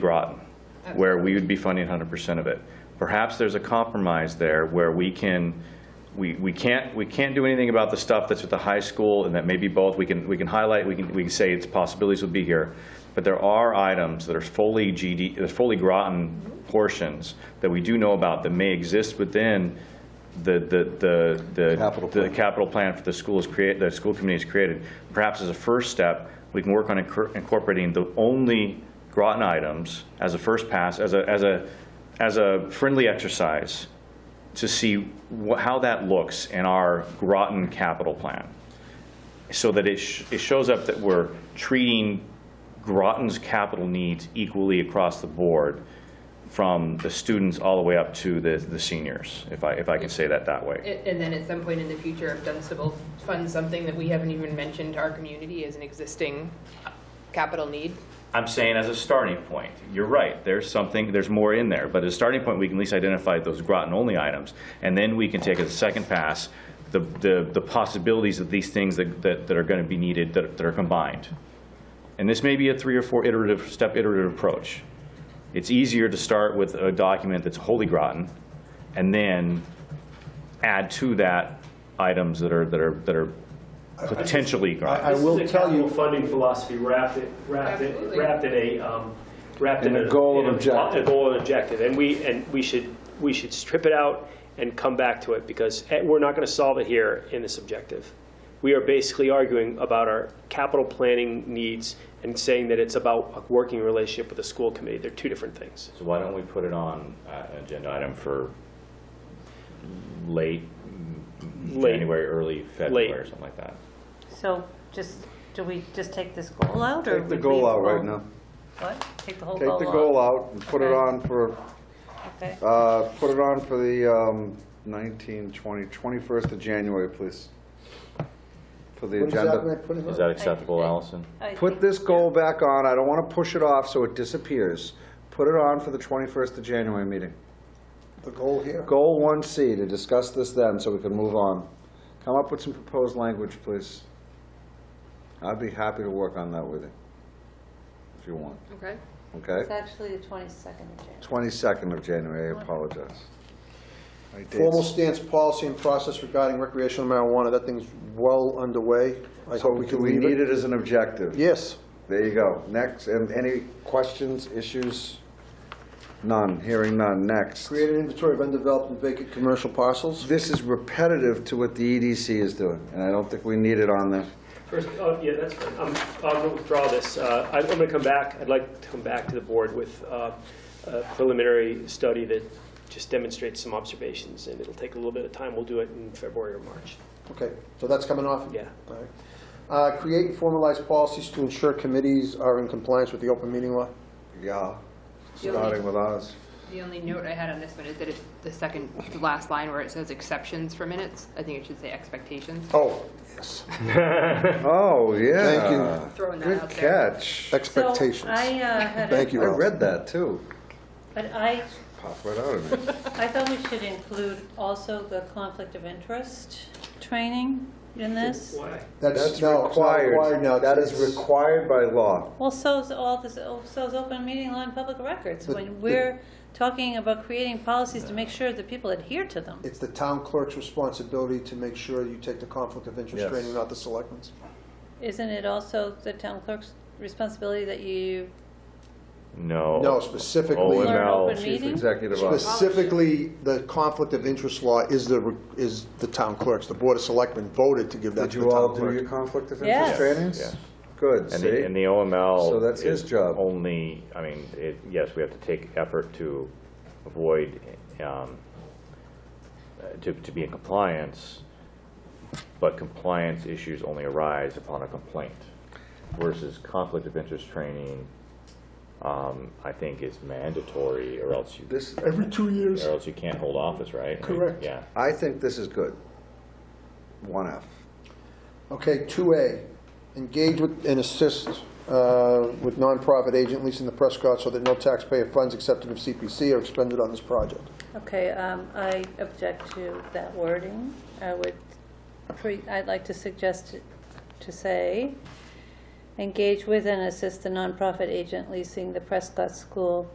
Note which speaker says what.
Speaker 1: brought, where we would be funding 100% of it. Perhaps there's a compromise there where we can, we, we can't, we can't do anything about the stuff that's at the high school and that maybe both, we can, we can highlight, we can, we can say its possibilities would be here. But there are items that are fully GD, that are fully Groton portions that we do know about that may exist within the, the, the- the.
Speaker 2: Capital
Speaker 1: The
Speaker 2: plan.
Speaker 1: capital plan for the school is create, the school committee is created. Perhaps as a first step, we can work on incor- incorporating the only Groton items as a first pass, as a, as a, as a friendly exercise to see wha- how that looks in our Groton capital plan. So that it, sh- it shows up that we're treating Groton's capital needs equally across the board from the students all the way up to the, the seniors, if I, if I can say that that way.
Speaker 3: And and then at some point in the future, if Dunstable funds something that we haven't even mentioned to our community as an existing capital need,
Speaker 1: I'm saying as a starting point, you're right, there's something, there's more in there, but as a starting point, we can at least identify those Groton-only items, and then we can take as a second pass the, the, the possibilities of these things that, that that are gonna be needed, that, that are combined. And this may be a three or four iterative, step iterative approach. It's easier to start with a document that's wholly Groton, and then add to that items that are, that are, that are potentially Groton.
Speaker 2: I will
Speaker 4: This is a
Speaker 2: tell
Speaker 4: capital
Speaker 2: you-
Speaker 4: funding philosophy wrapped it, wrapped it,
Speaker 3: Absolutely.
Speaker 4: wrapped in a, um, wrapped
Speaker 2: In
Speaker 4: in
Speaker 2: a
Speaker 4: a.
Speaker 2: goal and
Speaker 4: in a-
Speaker 2: objective.
Speaker 4: A goal and objective, and we, and we should, we should strip it out and come back to it, because eh, we're not gonna solve it here in this objective. We are basically arguing about our capital planning needs and saying that it's about a working relationship with the school committee, they're two different things.
Speaker 1: So why don't we put it on uh, an agenda item for late
Speaker 4: Late.
Speaker 1: January, early February, or something like that?
Speaker 5: So just, do we just take this goal out or?
Speaker 2: Take the
Speaker 5: we
Speaker 2: goal
Speaker 5: leave
Speaker 2: out right
Speaker 5: alone?
Speaker 2: now.
Speaker 5: What? Take the whole goal
Speaker 2: Take
Speaker 5: out?
Speaker 2: the goal out and put it
Speaker 5: Okay.
Speaker 2: on for,
Speaker 5: Okay.
Speaker 2: uh, put it on for the um, 19, 20, 21st of January, please. For the agenda.
Speaker 1: Is that acceptable, Allison?
Speaker 5: I
Speaker 2: Put
Speaker 5: think-
Speaker 2: this goal back on. I don't want to push it off so it disappears. Put it on for the 21st of January meeting.
Speaker 6: The goal here,
Speaker 2: Goal 1C, to discuss this then, so we can move on. Come up with some proposed language, please. I'd be happy to work on that with you, if you want,
Speaker 3: okay?
Speaker 2: okay?
Speaker 5: It's actually the 22nd of January.
Speaker 2: 22nd of January, I apologize. My dates-
Speaker 6: formal stance, policy, and process regarding recreational marijuana, that thing's well underway. I
Speaker 2: So
Speaker 6: hope we
Speaker 2: we
Speaker 6: can
Speaker 2: we
Speaker 6: leave
Speaker 2: need
Speaker 6: it.
Speaker 2: it as an objective.
Speaker 6: Yes,
Speaker 2: There you go. Next, and any questions, issues? None, hearing none, next.
Speaker 6: create an inventory of undeveloped and vacant commercial parcels.
Speaker 2: This is repetitive to what the EDC is doing, and I don't think we need it on the,
Speaker 4: First, oh, yeah, that's fine. I'm, I'm going to withdraw this. Uh, I- I'm going to come back, I'd like to come back to the board with uh, a preliminary study that just demonstrates some observations, and it'll take a little bit of time. We'll do it in February or March.
Speaker 6: Okay, so that's coming off?
Speaker 4: Yeah.
Speaker 6: All right. Uh, Create and formalize policies to ensure committees are in compliance with the open meeting law.
Speaker 2: yeah, starting with ours.
Speaker 3: The only note I had on this one is that it's the second, the last line where it says exceptions for minutes, I think it should say expectations.
Speaker 6: Oh, yes,
Speaker 2: Oh, yeah.
Speaker 6: Thank you.
Speaker 3: Throwing that
Speaker 2: Good
Speaker 3: out there.
Speaker 2: catch.
Speaker 5: So
Speaker 6: expectations.
Speaker 5: I uh, had,
Speaker 6: Thank
Speaker 5: a-
Speaker 2: I
Speaker 6: you, Al.
Speaker 2: read that too.
Speaker 5: but I,
Speaker 2: Pop right out of me.
Speaker 5: I thought we should include also the conflict of interest training in this.
Speaker 4: Why?
Speaker 6: That's no, it's not required now.
Speaker 2: That
Speaker 6: It's-
Speaker 2: is required by law.
Speaker 5: Well, so's all this, so's open meeting law and public records. When we're talking about creating policies to make sure that people adhere to them.
Speaker 6: It's the town clerk's responsibility to make sure you take the conflict of interest
Speaker 2: Yes.
Speaker 6: training, not the selectmen's.
Speaker 5: Isn't it also the town clerk's responsibility that you
Speaker 1: No.
Speaker 6: No, specifically.
Speaker 1: Oh,
Speaker 5: Learn
Speaker 1: no.
Speaker 5: open
Speaker 2: Chief
Speaker 5: meeting?
Speaker 2: Executive Officer.
Speaker 6: Specifically, the conflict of interest law is the, is the town clerk's. The Board of Selectmen voted to give that
Speaker 2: Did
Speaker 6: to the
Speaker 2: you all
Speaker 6: town
Speaker 2: do your
Speaker 6: clerk.
Speaker 2: conflict of
Speaker 5: Yes.
Speaker 2: interest trainings?
Speaker 1: Yeah.
Speaker 2: Good,
Speaker 1: And the, and the
Speaker 2: see?
Speaker 1: OML.
Speaker 2: So that's his
Speaker 1: is
Speaker 2: job.
Speaker 1: Only, I mean, it, yes, we have to take effort to avoid, um, uh, to, to be in compliance, but compliance issues only arise upon a complaint versus conflict of interest training, um, I think is mandatory or else you,
Speaker 2: This,
Speaker 6: Every two years.
Speaker 1: or else you can't hold office, right? I mean,
Speaker 6: Correct.
Speaker 1: Yeah.
Speaker 2: I think this is good. One F.
Speaker 6: Okay, 2A, engage with and assist uh, with nonprofit agent leasing the Prescott so that no taxpayer funds accepted of CPC are expended on this project.
Speaker 5: Okay, um, I object to that wording. I would, pre- I'd like to suggest to say, engage with and assist the nonprofit agent leasing the Prescott School